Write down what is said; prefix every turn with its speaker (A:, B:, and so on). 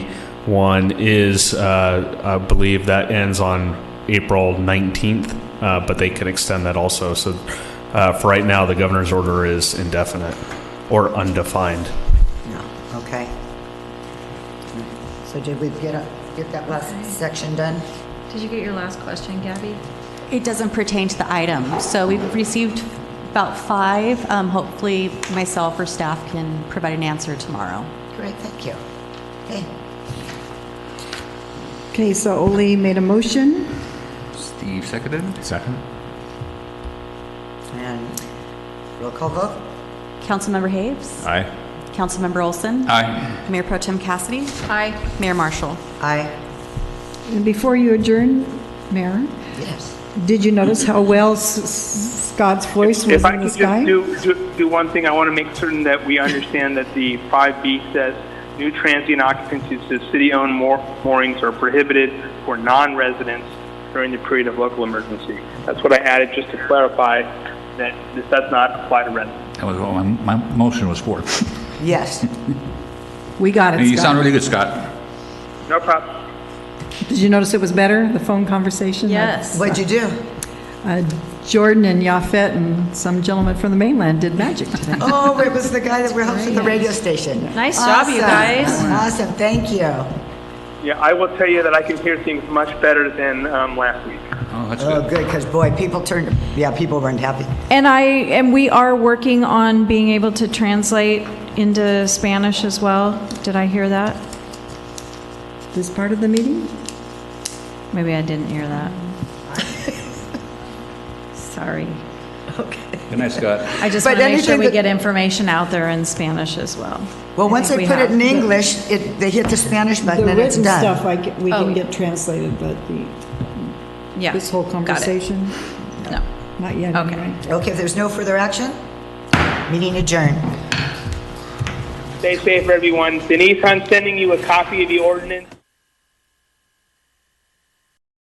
A: one is, uh, I believe that ends on April 19th, uh, but they can extend that also. So uh, for right now, the governor's order is indefinite or undefined.
B: No, okay. So did we get, a- get that last section done?
C: Did you get your last question, Gabby?
D: It doesn't pertain to the item. So we've received about five. Um, Hopefully, myself or staff can provide an answer tomorrow.
B: Great, thank you. Okay,
E: Okay, so Ole made a motion.
F: Steve seconded.
G: Second?
B: and roll call vote?
D: Councilmember Haves?
G: Aye.
D: Councilmember Olson?
F: Aye.
D: Mayor Pro Tem Cassidy?
C: Aye.
D: Mayor Marshall?
B: Aye,
E: And before you adjourn, Mayor,
B: yes.
E: did you notice how well S- S- Scott's voice was
H: If I
E: in
H: can
E: the
H: just
E: sky?
H: do, do, do one thing, I want to make certain that we understand that the 5B says new transient occupancies to city-owned moor- moorings are prohibited for non-residents during the period of local emergency. That's what I added just to clarify that this does not apply to residents.
F: That was what my, my motion was for.
B: Yes,
E: We got it,
F: You sound
E: Scott.
F: really good, Scott.
H: No problem.
E: Did you notice it was better, the phone conversation?
C: Yes.
B: what'd you do?
E: Uh, Jordan and Yafet and some gentleman from the mainland did magic today.
B: Oh, it was the guy that helps with the radio station.
C: Nice job,
B: Awesome.
C: you guys.
B: Awesome, thank you.
H: Yeah, I will tell you that I can hear things much better than um, last week.
F: Oh, that's
B: Oh,
F: good.
B: good, because boy, people turned, yeah, people weren't happy.
C: And I, and we are working on being able to translate into Spanish as well. Did I hear that? Oh.
E: This part of the meeting?
C: Maybe I didn't hear that. Sorry.
F: Good night, Scott.
C: I just
B: But
C: want to make sure
B: anything
C: we
B: that-
C: get information out there in Spanish as well.
B: Well, once
C: think
B: they
C: we
B: put it
C: have.
B: in English, it, they hit the Spanish
E: The
B: button and it's
E: written stuff,
B: done.
E: I ca- we
C: Oh,
E: can
C: yeah.
E: get translated, but the,
C: Yeah.
E: this whole
C: got it.
E: conversation,
C: No.
E: not yet,
C: Okay.
E: anyway.
B: Okay, if there's no further action, meeting adjourned.
H: Stay safe, everyone. Denise, I'm sending you a copy of the ordinance.